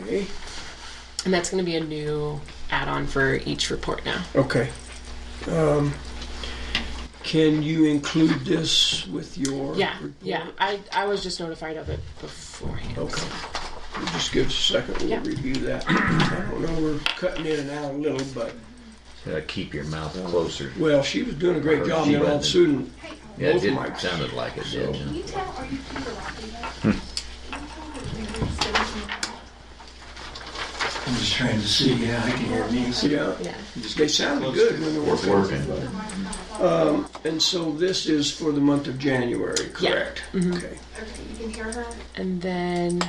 Okay. And that's going to be a new add on for each report now. Okay. Um, can you include this with your Yeah, report? yeah. I, I was just notified of it beforehand. Okay. We'll just give us a second. We'll Yeah. review that. I don't know. We're cutting in and out a little, but Uh, keep your mouth closer. well, she was doing a great Or job. she And on wasn't. Susan, Yeah, it both did, mics. sounded like it did. Can yeah. you tell, are you people laughing though? Can you tell that we were sitting in the back? I'm just trying to see, yeah, I can hear me. So yeah, Yeah. they sounded good when they were It's working. And so this is for the month of January, correct? Mm-hmm. Okay. Okay, you can hear her? And then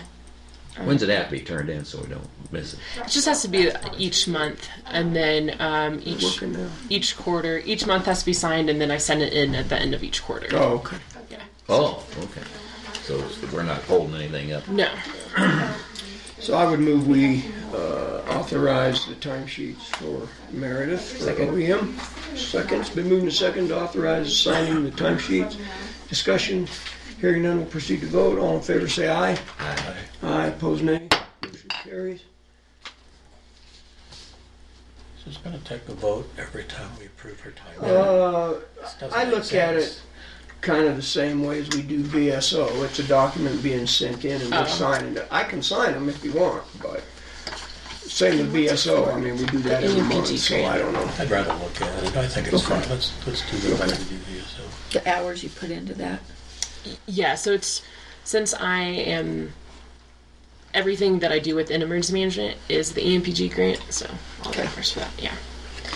When's it have to be turned in so we don't miss it? it just has to be each month. And then um, each Working now. each quarter, each month has to be signed, and then I send it in at the end of each quarter. Oh, okay. Oh, okay. So we're not holding anything up. No. So I would move we uh, authorize the timesheets for Meredith for OEM. Second, it's been moved and second to authorize signing the timesheets. Discussion, hearing none, will proceed to vote. All in favor, say aye. Aye. Aye, opposed, nay. Motion carries. it's gonna take a vote every time we approve her time. Uh, I look at it kind of the same way as we do VSO. It's a document being sent in and we're Uh-huh. signing it. I can sign them if you want, but same with VSO. I mean, we do that every In PG month, so I don't know. I'd rather look at it, I think it's fine, let's, let's do the better do so. the hours you put into that. Yeah, so it's since I am everything that I do within emergency management is the E EMPG grant, so all the efforts for that. Yeah,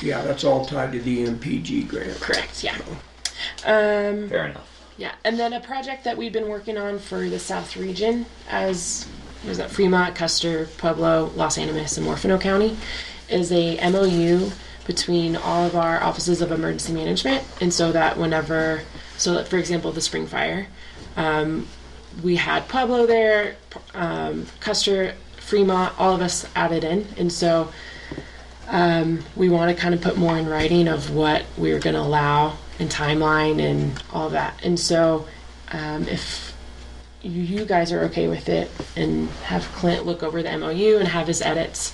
Yeah, that's all tied to the MPG grant. correct. Yeah. Um, Fair enough. Yeah, and then a project that we've been working on for the South Region as what was that Fremont, Custer, Pueblo, Los Animas, and Morfino County is a MOU between all of our offices of emergency management, and so that whenever, so that for example, the spring fire, um, we had Pueblo there, um, Custer, Fremont, all of us added in, and so we want to kind of put more in writing of what we're going to allow and timeline and all that. And so, um, if you- you guys are okay with it, and have Clint look over the MOU and have his edits,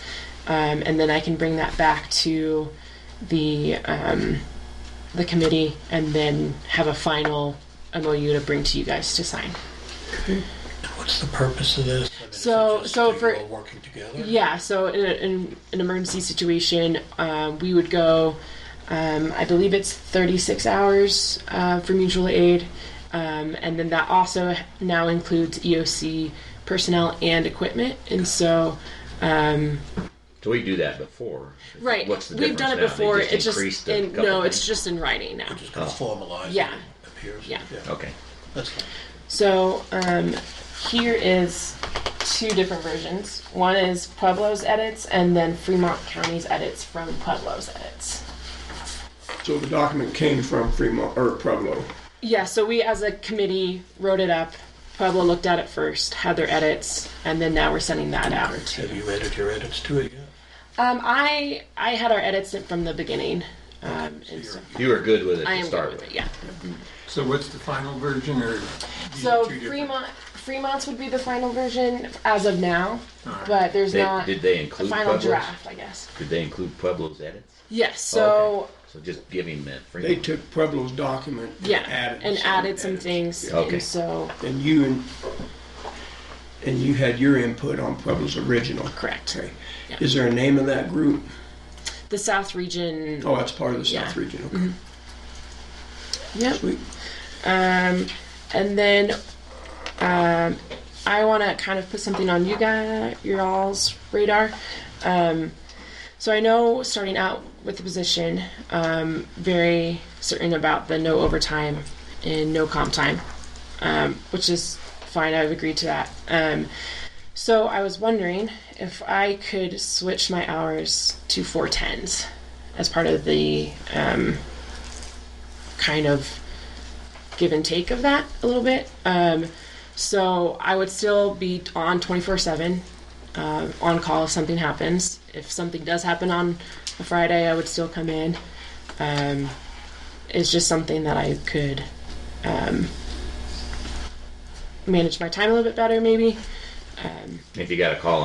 um, and then I can bring that back to the um, the committee, and then have a final MOU to bring to you guys to sign. What's the purpose of this? I mean, is it So- just so you for- all Working together? Yeah, so in, a, in an emergency situation, um, we would go, um, I believe it's 36 hours uh, for mutual aid. Um, and then that also now includes EOC personnel and equipment. And so, So we do that before. right, What's the we've difference done it now? They before. just it's increased just, a in, couple no, it's things? just in writing now. Just Oh. gonna formalize it, Yeah. it appears. Yeah. Okay. That's fine. So um, here is two different versions. One is Pueblo's edits, and then Fremont County's edits from Pueblo's edits. So the document came from Fremont, or Pueblo. Yeah, so we as a committee wrote it up. Pueblo looked at it first, had their edits, and then now we're sending that out. Have you added your edits to it yet? Um, I I had our edits from the beginning. Um, and so You were good with it I to am good start with with. it. Yeah. So what's the final version or? these are So two different- Fremont Fremont's would be the final version as of now, but there's They- not did they a include final Pueblo's? draft, I guess. Did they include Pueblo's edits? Yes. Oh, So okay. so just give him that free. They took Pueblo's document. and yeah, added and some added some edits. things. Yeah. Okay. And so And you and, and you had your input on Pueblo's original. correct. Okay. Yeah. Is there a name of that group? The South Region. Oh, that's part of the South Yeah. Mm-hmm. Region, okay. Yep. Sweet. Um, and then um, I want to kind of put something on you guys, your all's radar. Um, so I know starting out with the position, um, very certain about the no overtime and no comp time, um, which is fine. I've agreed to that. Um, so I was wondering if I could switch my hours to four tens as part of the um, kind of give and take of that a little bit. Um, so I would still be on 24 7 uh, on call if something happens. If something does happen on a Friday, I would still come in. Um, it's just something that I could um, manage my time a little bit better, maybe. If you got a call